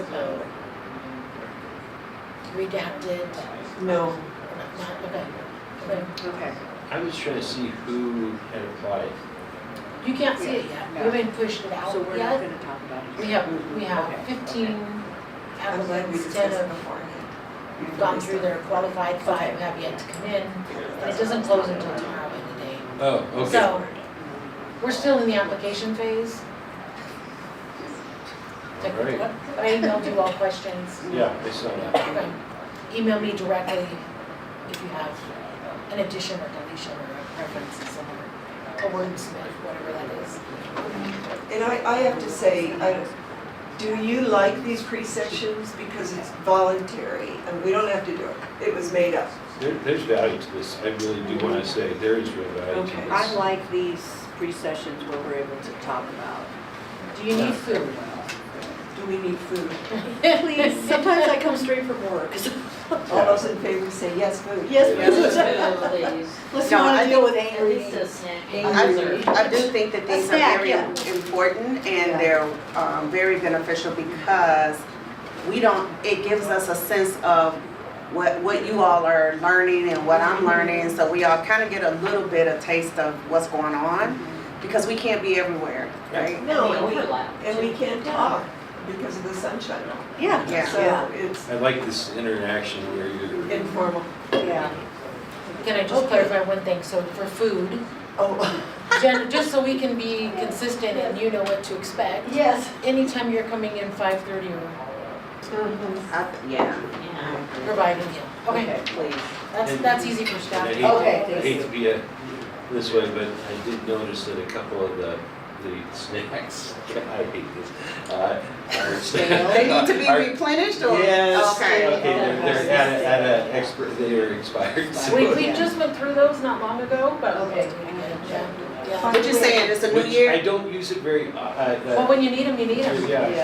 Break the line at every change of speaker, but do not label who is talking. Uh, redacted,
No.
not, okay. Okay.
Okay.
I was trying to see who had applied.
You can't see it yet, we
No.
haven't pushed it out
So we're not
yet.
gonna talk about it.
We have, we
Okay,
have
okay.
fifteen
I'm glad we
applicants,
discussed
ten
it
have
beforehand.
gone through their qualified, five have yet to come in. And it doesn't close until tomorrow in the day.
Oh,
So, we're still in the application phase.
Alright.
But I emailed you all questions.
Yeah, I saw that.
Okay. Email me directly if you have an addition or deletion or a preference in somewhere, a wordsmith, whatever that is.
And I, I have to say, I, do you like these pre-sessions? Because it's voluntary and we don't have to do it. It was made up.
There, there's value to this. I really do want to say there is real value to
Okay.
I
this.
like these pre-sessions where we're able to talk about.
Do you need food?
Do we need food?
Please, sometimes I come straight from work.
All those in favor say yes, food.
Yes,
Yeah.
please. Let's not deal with
At
angry.
least a snack.
I do- I do think that these are
snack,
very
yeah.
important and they're um, very beneficial because we don't, it gives us a sense of what, what you all are learning and what I'm learning. So we all kind of get a little bit of taste of what's going on because we can't be everywhere, right?
No,
The
and we,
overlap,
and we
too.
can't talk because of the sunshine.
Yeah.
Yeah.
So it's
I like this interaction where you're,
informal.
Yeah.
Can I just clarify one thing? So for food,
Oh,
Jen, just so we can be consistent and you know what to expect,
Yes.
anytime you're coming in five thirty or
I th- Yeah.
Yeah.
providing meal. Okay,
Okay, please.
that's, that's easy for
and I
staff.
hate,
Okay,
I
thank
hate
you.
to be a, this way, but I did notice that a couple of the, the snacks, I hate this. uh, are-
They need to be
are-
replenished or?
Yes.
Okay.
Okay, they're, they're at a, at a expert, they are expired, so.
We, we just went through those not long ago, but.
Okay.
Yeah.
What you saying, it's a new
Which
year?
I don't use it very, uh, uh,
Well, when you need them, you need them.
yeah.